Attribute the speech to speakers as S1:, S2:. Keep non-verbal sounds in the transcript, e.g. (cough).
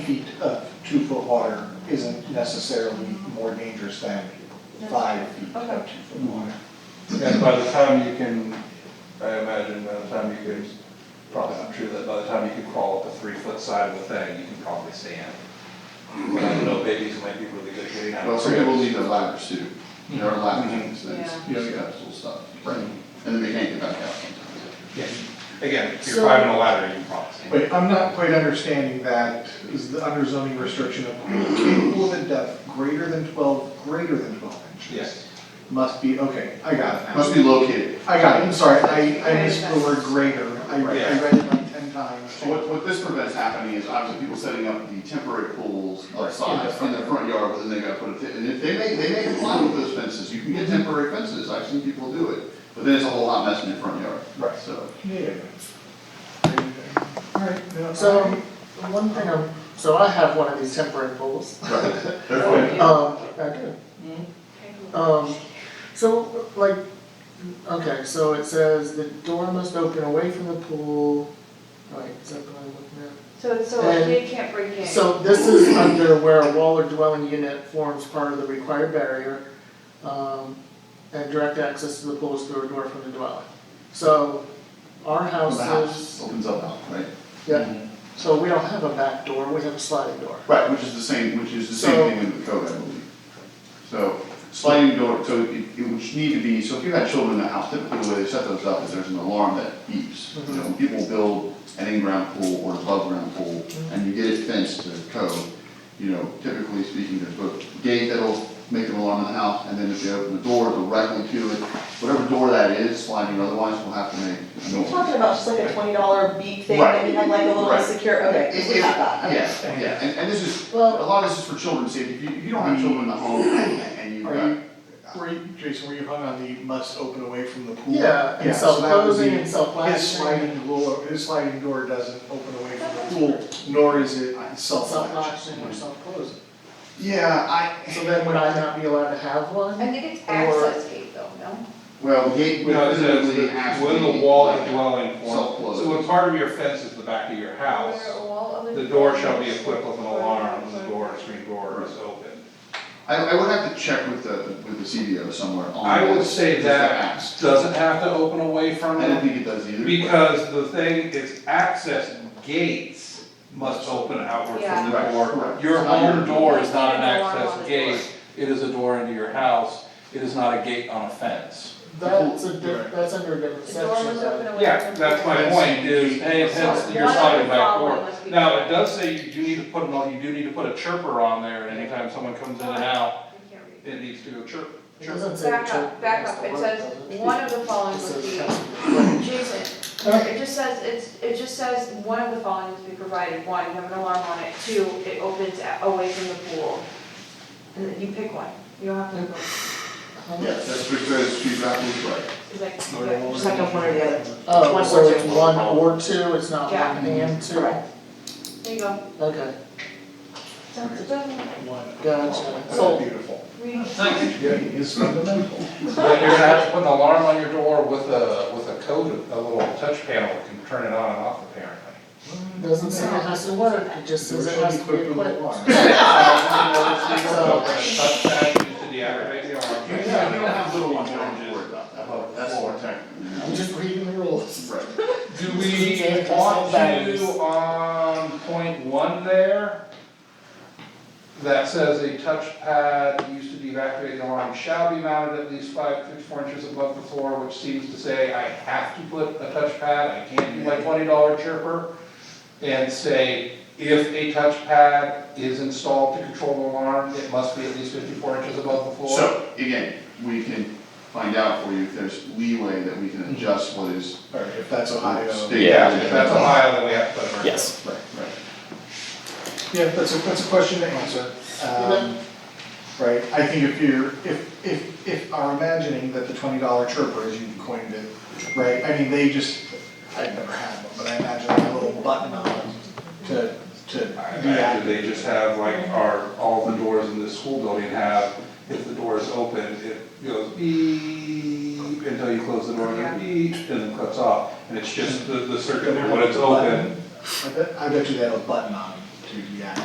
S1: feet of two-foot water isn't necessarily more dangerous than five feet of two-foot water.
S2: And by the time you can, I imagine by the time you can, probably not true, that by the time you can crawl up a three foot side of the thing, you can probably stand. But I don't know, babies might be really good getting out
S3: Well,
S2: of
S3: some people
S2: cribs.
S3: need the ladders too. There are ladders, and it's,
S4: Yeah.
S3: you know, you have to stop, right? And then they can't get back out sometimes.
S2: Yeah. Again, if you're
S4: So-
S2: climbing a ladder, you can probably stand.
S1: Wait, I'm not quite understanding that, is the under zoning restriction of capable of depth greater than twelve, greater than twelve inches?
S2: Yes.
S1: Must be, okay, I got it now.
S3: Must be located.
S1: I got it, I'm sorry, I, I missed the word greater, I, I
S2: Yeah.
S1: read it like ten times.
S3: So what, what this prevents happening is obviously people setting up the temporary pools outside in their front yard, but then they gotta put a, fe- and if they may, they may comply with those fences, you can get temporary fences, I've seen people do it. But then it's a whole hot mess in your front yard.
S1: Right.
S3: So,
S1: Yeah. Alright, no,
S5: So, one thing I'm, so I have one of these temporary pools.
S3: right, therefore,
S5: Um, I do. Um, so, like, okay, so it says the door must open away from the pool, right, is that what I'm looking
S4: So, so a kid can't break in.
S5: at? So this is under where a wall or dwelling unit forms part of the required barrier, um, and direct access to the pool is through a door from the dwelling. So, our
S3: the house
S5: houses,
S3: opens up out, right?
S5: yeah, so we don't have a back door, we have a sliding door.
S3: Right, which is the same, which is the
S5: So-
S3: same thing in the code, I believe. So sliding door, so it, it would need to be, so if you had children in the house, typically the way they set those up is there's an alarm that beeps. You know, people build an in-ground pool or an above-ground pool, and you get it fenced to code. You know, typically speaking, there's a gate that'll make an alarm in the house, and then if you open the door directly to it, whatever door that is, sliding or otherwise, will have to make a
S6: You're
S3: noise.
S6: talking about just like a twenty dollar beep thing,
S3: Right.
S6: and you had like a little
S3: Right.
S6: secure, okay,
S3: If-
S6: we
S3: if-
S6: have that, okay.
S3: Yeah, yeah, and, and this is, a
S5: Well-
S3: lot of this is for children's safety, if you, if you don't have children in the home and you've
S1: Are
S3: got,
S1: you- Were you, Jason, were you hung on the must open away from the pool?
S5: Yeah, and
S1: Yeah, so that would
S5: self-closing
S1: be-
S5: and self-latching.
S1: His sliding door, his sliding door doesn't open away from the pool, nor is it self-latched.
S5: Self-latching or self-closing.
S3: yeah,
S5: So
S3: I,
S5: then would I not be allowed to have
S4: I
S5: one?
S4: think it's
S5: Or-
S4: access gate though, no?
S3: well, the gate would
S2: No, it says
S3: physically
S2: that
S3: have to be.
S2: when the wall and dwelling form,
S3: Self-closed.
S2: so when part of your fence is the back of your house,
S4: Where all other
S2: the door shall be
S4: doors-
S2: equipped with an alarm when the door, screen door is open.
S3: I, I would have to check with the, with the CBO somewhere on.
S2: I would
S3: this,
S2: say
S3: if
S2: that
S3: happens.
S2: doesn't have to open away from
S3: I don't
S2: it,
S3: think it does either. but-
S2: because the thing is access gates must open outward from the
S3: Yeah.
S2: door.
S3: Right.
S2: Your
S3: It's not
S2: home
S3: your-
S2: door is not an
S4: Alarm on the
S2: access gate,
S4: door.
S2: it is a door into your house, it is not a gate on a fence.
S5: That's a
S3: Right.
S5: diff, that's under a different
S4: The door
S5: section.
S4: was open
S5: though.
S4: away.
S2: Yeah,
S4: from
S2: that's my
S4: the-
S2: point, is, hey, hence your side of back
S4: One
S2: door.
S4: of the following
S2: Now,
S4: must
S2: it
S4: be-
S2: does say you do need to put, an- you do need to put a chirper on there, and anytime someone comes in and
S4: I
S2: out,
S4: can't read.
S2: it needs to go chirp,
S5: It
S2: chirp.
S5: doesn't say
S4: Back
S5: children,
S4: up, back
S5: that's
S4: up,
S5: the
S4: it
S5: word,
S4: says,
S5: doesn't it?
S4: one of the following
S5: It
S4: must
S5: says
S4: be,
S5: children.
S4: Jason,
S5: Huh?
S4: it just says, it's, it just says, one of the following must be provided, one, you have an alarm on it, two, it opens a- away from the pool. And then you pick one, you don't have to, go.
S3: Yes, that's because she's absolutely right.
S4: it's like,
S1: Or the wall.
S4: yeah,
S6: Just like a one or the other.
S5: Oh,
S6: One
S5: so
S6: or
S5: it's
S6: two.
S5: one or two, it's not
S4: Yeah.
S5: one and two?
S6: Correct.
S4: there you go.
S5: Okay,
S4: Sounds good.
S1: One.
S5: Gotcha.
S1: That's beautiful.
S4: Read.
S1: Yeah, it's fundamental.
S2: But you're gonna
S3: (laughs)
S2: have to put an alarm on your door with a, with a code, a little touch panel that can turn it on and off apparently.
S5: doesn't say it has to work, it just says it has to be
S1: Equipped with
S5: equipped.
S1: alarm.
S2: So, touch that into the aggravating alarm.
S3: Yeah, if you don't have little ones, you don't have to worry about that, that's more
S5: I'm just reading the rules.
S3: Right.
S2: Do we want to, on point one there, that says a touchpad used to be evacuated alarm shall be mounted at least five, six, four inches above the floor, which seems to say I have to put a touchpad, I can't do my twenty dollar chipper. And say, if a touchpad is installed to control the alarm, it must be at least fifty-four inches above the floor.
S3: So, again, we can find out for you if there's leeway that we can adjust what is
S1: Alright, if that's
S2: uh,
S1: Ohio.
S3: state.
S2: If that's Ohio, then we have to put it. Yes.
S3: Right, right.
S1: Yeah, that's a, that's a question to answer. Um, Right, I think if you're, if, if, if are imagining that the twenty dollar chirper, as you coined it, right, I mean, they just, I've never had one, but I imagine a little button on it to, to
S2: I imagine they just have like our, all the doors in this school building have, if the door is open, it goes beep until you close the door, and then beep, and then cuts off. And it's just the, the circuit, when it's open,
S1: I bet, I bet you they have a button on it to deactivate.